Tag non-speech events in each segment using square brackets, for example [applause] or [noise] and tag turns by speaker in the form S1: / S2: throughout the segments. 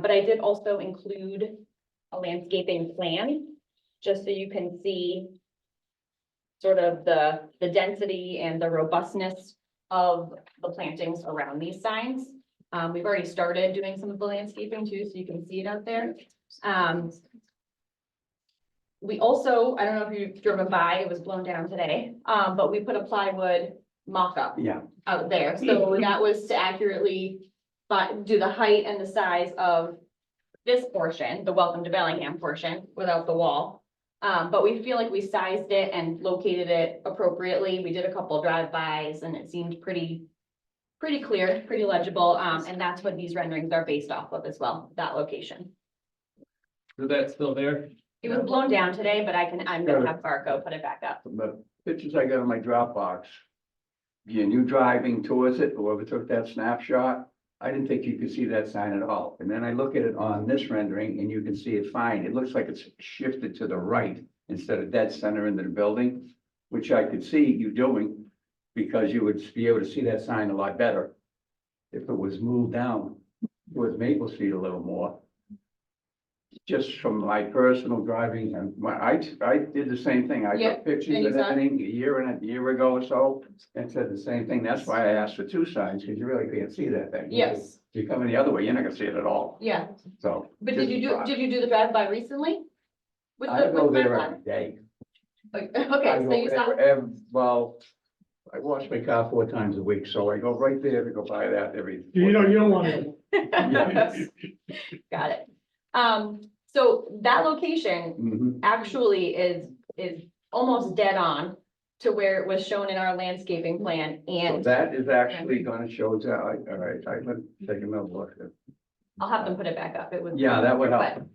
S1: But I did also include a landscaping plan, just so you can see sort of the, the density and the robustness of the plantings around these signs. Um, we've already started doing some of the landscaping too, so you can see it out there. Um, we also, I don't know if you've driven by, it was blown down today, um, but we put a plywood mock-up
S2: Yeah,
S1: out there.
S2: [laughs]
S1: So that was to accurately, but do the height and the size of this portion, the welcome to Bellingham portion without the wall. Um, but we feel like we sized it and located it appropriately. We did a couple drive-bys and it seemed pretty, pretty clear, pretty legible. Um, and that's what these renderings are based off of as well, that location.
S3: Is that still there?
S1: It was blown down today, but I can, I'm gonna have Barco put it back up.
S2: from the pictures I got on my Dropbox. And you driving towards it, whoever took that snapshot, I didn't think you could see that sign at all. And then I look at it on this rendering and you can see it fine. It looks like it's shifted to the right instead of dead center into the building, which I could see you doing because you would be able to see that sign a lot better if it was moved down towards Maple Street a little more. Just from my personal driving and my, I, I did the same thing. I
S1: Yeah,
S2: took pictures
S1: and you
S2: of
S1: saw-
S2: everything a year and a year ago or so and said the same thing. That's why I asked for two signs because you really can't see that thing.
S1: Yes,
S2: If you're coming the other way, you're not gonna see it at all.
S1: yeah.
S2: So.
S1: But did you do, did you do the drive-by recently? With
S2: I
S1: the-
S2: go
S1: with my
S2: there
S1: plan?
S2: every day.
S1: Like, [laughs]
S2: I
S1: okay,
S2: go
S1: so you saw,
S2: ev- ev- Well, I wash my car four times a week, so I go right there to go buy that every.
S3: You don't, you don't want to.
S1: [laughs] got it. Um, so that location
S2: Mhm.
S1: actually is, is almost dead on to where it was shown in our landscaping plan
S2: So
S1: and
S2: that is actually gonna show that, I- all right, I'm gonna take another look.
S1: I'll have them put it back up. It was.
S2: Yeah, that would help.
S1: but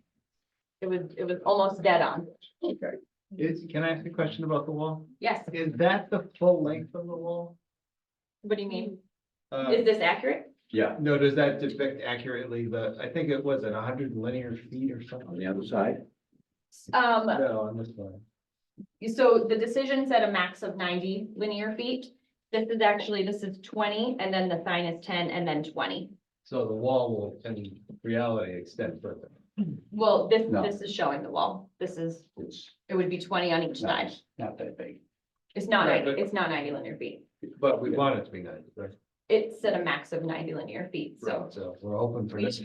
S1: It was, it was almost dead on.
S2: Okay,
S3: Is, can I ask a question about the wall?
S1: Yes.
S3: Is that the full length of the wall?
S1: What do you mean?
S3: Uh,
S1: Is this accurate?
S2: yeah,
S3: no, does that depict accurately the, I think it was an hundred linear feet or
S2: on
S3: something?
S2: the other side,
S1: Um,
S3: No, on this one.
S1: So the decision said a max of ninety linear feet. This is actually, this is twenty, and then the sign is ten, and then twenty.
S3: So the wall will, in reality, extend further.
S1: Well, this,
S2: No.
S1: this is showing the wall. This is,
S2: it's
S1: it would be twenty on each
S2: not,
S1: side.
S2: it's not that big. [laughs]
S1: It's not
S3: Right,
S1: ninety,
S3: but-
S1: it's not ninety linear feet.
S3: But we want it to be ninety, right?
S1: It said a max of ninety linear feet, so.
S3: So we're open for
S1: We-
S3: this.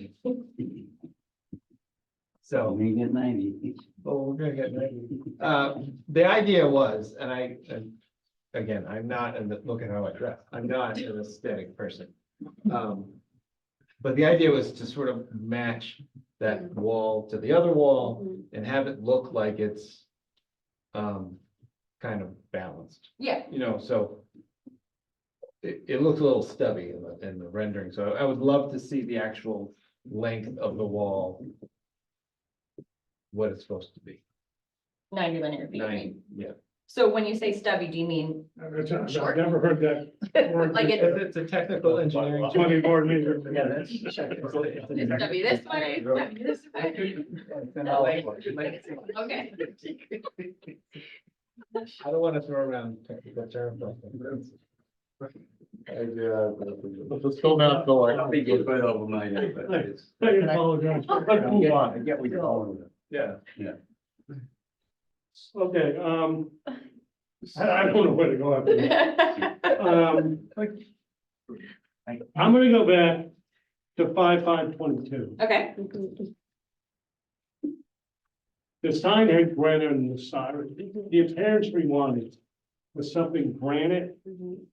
S3: So,
S2: You get ninety. [laughs]
S3: oh, we're gonna get ninety. Uh, the idea was, and I, and again, I'm not, and look at how I dress, I'm not an aesthetic person. Um, but the idea was to sort of match that wall to the other wall and have it look like it's um, kind of balanced,
S1: Yeah,
S3: you know, so it, it looked a little stubby in the, in the rendering, so I would love to see the actual length of the wall what it's supposed to be,
S1: ninety linear feet. I mean.
S3: nine, yeah.
S1: So when you say stubby, do you mean
S4: I've I've
S1: Short.
S4: never heard that
S1: [laughs]
S4: word.
S1: like it-
S3: It's, it's a technical engineering. term.
S4: Money board meeting.
S2: Yeah,
S1: [laughs]
S2: that's.
S3: [laughs]
S1: it's stubby this way, stubby this way? [laughs]
S2: It's
S1: Okay,
S3: I don't wanna throw around technical terms. like that.
S4: Let's go back to
S2: I'll be good, but over my head, but it's-
S4: I [laughs] um, apologize. Let's
S2: I
S4: move
S2: get-
S4: on.
S2: I get what you're going with. it.
S3: Yeah.
S4: Okay, um, I I don't know where to go after that. [laughs] Um, I'm gonna go back to five, five, twenty-two.
S1: okay,
S5: Mm-hmm.
S4: The sign had granite in the side. The appearance we wanted was something granite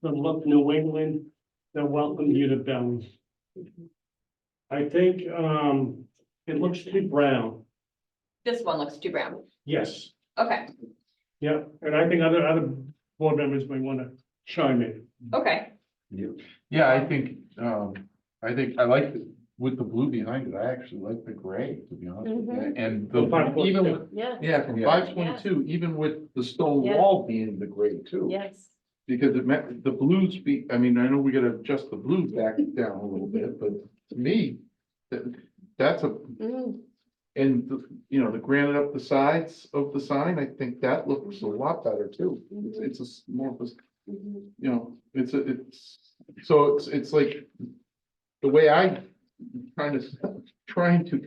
S4: that looked New England that welcomed you to Belleville. I think, um, it looks too brown.
S1: this one looks too brown.
S4: Yes.
S1: Okay,
S4: Yeah, and I think other, other board members may want to chime in.
S1: okay,
S2: You-
S6: Yeah, I think, um, I think I like the- with the blue behind it, I actually like the gray, to be honest. with you. And the,
S4: From five foot
S6: even
S4: two.
S6: with,
S5: Yeah,
S6: yeah, from
S2: Yeah.
S6: five twenty-two, even with the stone
S5: Yeah.
S6: wall being the gray too.
S5: yes.
S6: Because it meant, the blues be, I mean, I know we gotta adjust the blue back down a little bit, but to me, that, that's a,
S5: Mm,
S6: and, the you know, the granite up the sides of the sign, I think that looks a lot better too. It's, it's a s- more of a
S5: mhm.
S6: you know, it's, a it's, so it's, it's like, the way I trying to, trying to